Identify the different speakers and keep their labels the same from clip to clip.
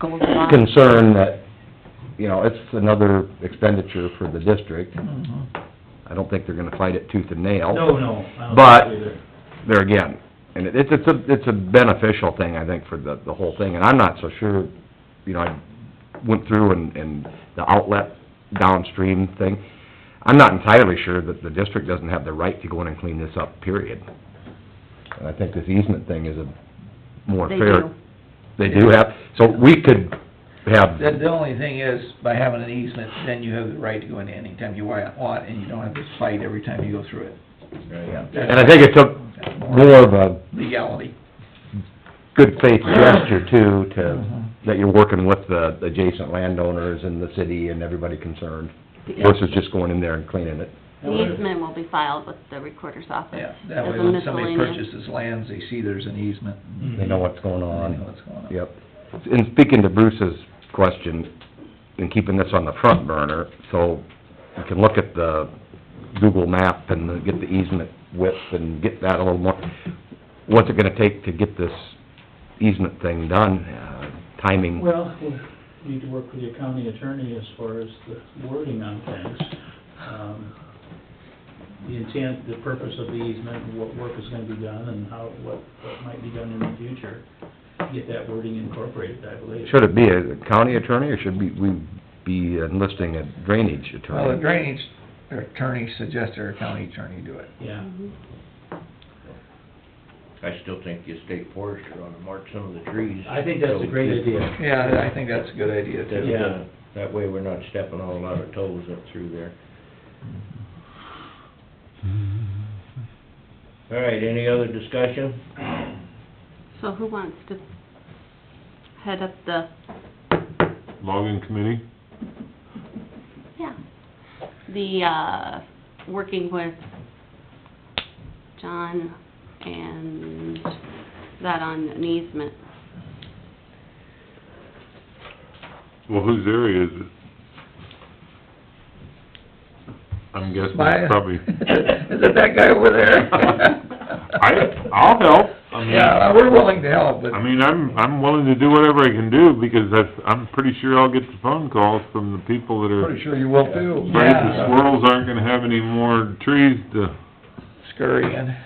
Speaker 1: goes on.
Speaker 2: concern that, you know, it's another expenditure for the district. Mm-hmm. I don't think they're gonna fight it tooth and nail.
Speaker 3: No, no. I don't
Speaker 2: But-
Speaker 3: think either.
Speaker 2: There again, and it, it's a, it's a beneficial thing, I think, for the, the whole thing, and I'm not so sure, you know, I went through and, and the outlet downstream thing. I'm not entirely sure that the district doesn't have the right to go in and clean this up, period. And I think this easement thing is a more
Speaker 1: They
Speaker 2: fair.
Speaker 1: do.
Speaker 2: They do have, so we could have
Speaker 4: The, the only thing is, by having an easement, then you have the right to go in anytime you wa- want, and you don't have to fight every time you go through it.
Speaker 2: And I think it took more of a
Speaker 4: Legality.
Speaker 2: good faith gesture too, to,
Speaker 4: Mm-hmm.
Speaker 2: that you're working with the adjacent landowners and the city and everybody concerned, versus just going in there and cleaning it.
Speaker 3: That
Speaker 5: The
Speaker 3: would've-
Speaker 5: easement will be filed with the recorder's office.
Speaker 4: Yeah, that
Speaker 5: as
Speaker 4: way
Speaker 5: a
Speaker 4: when somebody
Speaker 5: miscellaneous.
Speaker 4: purchases lands, they see there's an easement.
Speaker 2: They know what's going
Speaker 4: They know
Speaker 2: on.
Speaker 4: what's going on.
Speaker 2: Yep. And speaking to Bruce's question, and keeping this on the front burner, so you can look at the Google map and get the easement width and get that a little more. What's it gonna take to get this easement thing done, uh, timing?
Speaker 3: Well, we need to work with your county attorney as far as the wording on things. Um, The intent, the purpose of the easement, what work is gonna be done, and how, what, what might be done in the future. Get that wording incorporated, I believe.
Speaker 2: Should it be a county attorney, or should be, we be enlisting a drainage
Speaker 4: Well, the
Speaker 2: attorney?
Speaker 4: drainage attorney suggested our county attorney do it.
Speaker 3: Yeah.
Speaker 6: I still think the state forester ought to mark some of the trees.
Speaker 3: I think that's a great idea.
Speaker 4: Yeah, I think that's a good idea
Speaker 6: That, uh,
Speaker 4: too.
Speaker 3: Yeah.
Speaker 6: That way we're not stepping on a lot of toes up through there. All right, any other discussion?
Speaker 5: So who wants to head up the,
Speaker 7: logging committee?
Speaker 5: yeah, the, uh, working with John and that on an easement?
Speaker 7: Well, whose area is it? I'm guessing
Speaker 4: My-
Speaker 7: it's probably,
Speaker 4: Is it that guy over there?
Speaker 7: I, I'll help. I mean,
Speaker 4: Yeah, we're willing to help, but,
Speaker 7: I mean, I'm, I'm willing to do whatever I can do because that's, I'm pretty sure I'll get the phone calls from the people that are
Speaker 4: pretty sure you will too.
Speaker 7: afraid the
Speaker 4: Yeah.
Speaker 7: squirrels aren't gonna have any more trees to,
Speaker 4: Scurry in.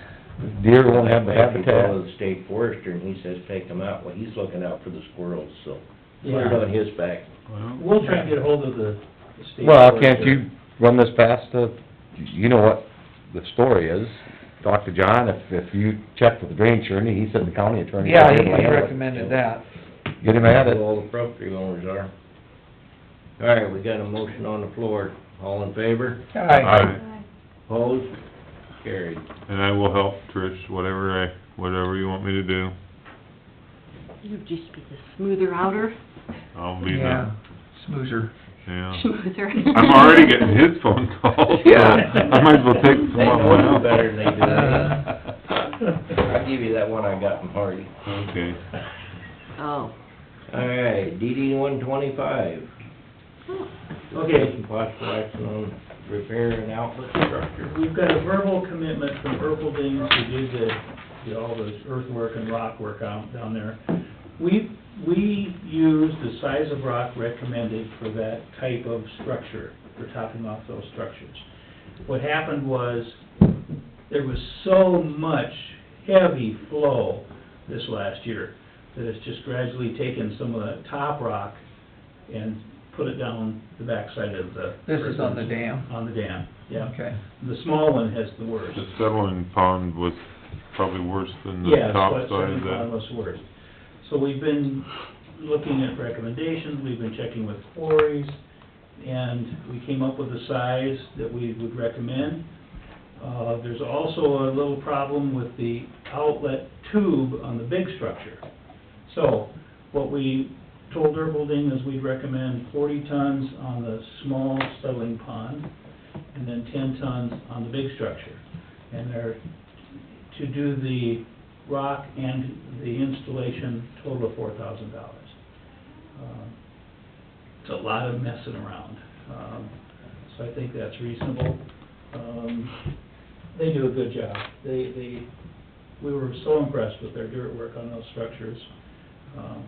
Speaker 2: Deer won't have the
Speaker 6: If you call
Speaker 2: habitat.
Speaker 6: the state forester and he says take them out, well, he's looking out for the squirrels, so put it on his back.
Speaker 7: well,
Speaker 3: We'll try and get hold of the the state.
Speaker 2: Well,
Speaker 3: forester.
Speaker 2: can't you run this past the, you know what the story is, talk to John, if, if you check with the drainage attorney, he said the county attorney.
Speaker 4: Yeah, he
Speaker 3: uh,
Speaker 4: he recommended that.
Speaker 2: Get him at it.
Speaker 6: All the property owners are. All right, we got a motion on the floor. All in favor?
Speaker 4: Aye.
Speaker 7: I,
Speaker 6: Opposed? Carried.
Speaker 7: and I will help Trish, whatever I, whatever you want me to do.
Speaker 5: You'd just be the smoother outer,
Speaker 7: I'll be
Speaker 4: Yeah,
Speaker 7: the,
Speaker 4: smoozer.
Speaker 7: yeah.
Speaker 5: smoother.
Speaker 7: I'm already getting his phone calls, so
Speaker 4: Yeah.
Speaker 7: I might as well take some
Speaker 6: They
Speaker 7: of
Speaker 6: know
Speaker 7: mine
Speaker 6: you
Speaker 7: out.
Speaker 6: better than they do.
Speaker 4: Uh.
Speaker 6: I'll give you that one I got from Hardy.
Speaker 7: Okay.
Speaker 5: Oh.
Speaker 6: All right, DD one twenty-five.
Speaker 3: Okay.
Speaker 6: Possible action on repair and outlet structure.
Speaker 3: We've got a verbal commitment from Erpeldings who did the, did all those earthwork and rock work out down there. We, we use the size of rock recommended for that type of structure, for topping off those structures. What happened was, there was so much heavy flow this last year, that it's just gradually taken some of the top rock and put it down the backside of the.
Speaker 4: This is on the dam?
Speaker 3: On the dam, yeah.
Speaker 4: Okay.
Speaker 3: The small one has the worst.
Speaker 7: The settling pond was probably worse than the
Speaker 3: Yeah,
Speaker 7: top
Speaker 3: but
Speaker 7: side of
Speaker 3: Pond
Speaker 7: that.
Speaker 3: was worse. So we've been looking at recommendations, we've been checking with quarries, and we came up with a size that we would recommend. Uh, there's also a little problem with the outlet tube on the big structure. So, what we told Erbelding is we'd recommend forty tons on the small settling pond, and then ten tons on the big structure. And they're to do the rock and the installation, total of four thousand dollars. Uh, It's a lot of messing around, um, so I think that's reasonable. Um, They do a good job. They, they, we were so impressed with their dirt work on those structures. Um,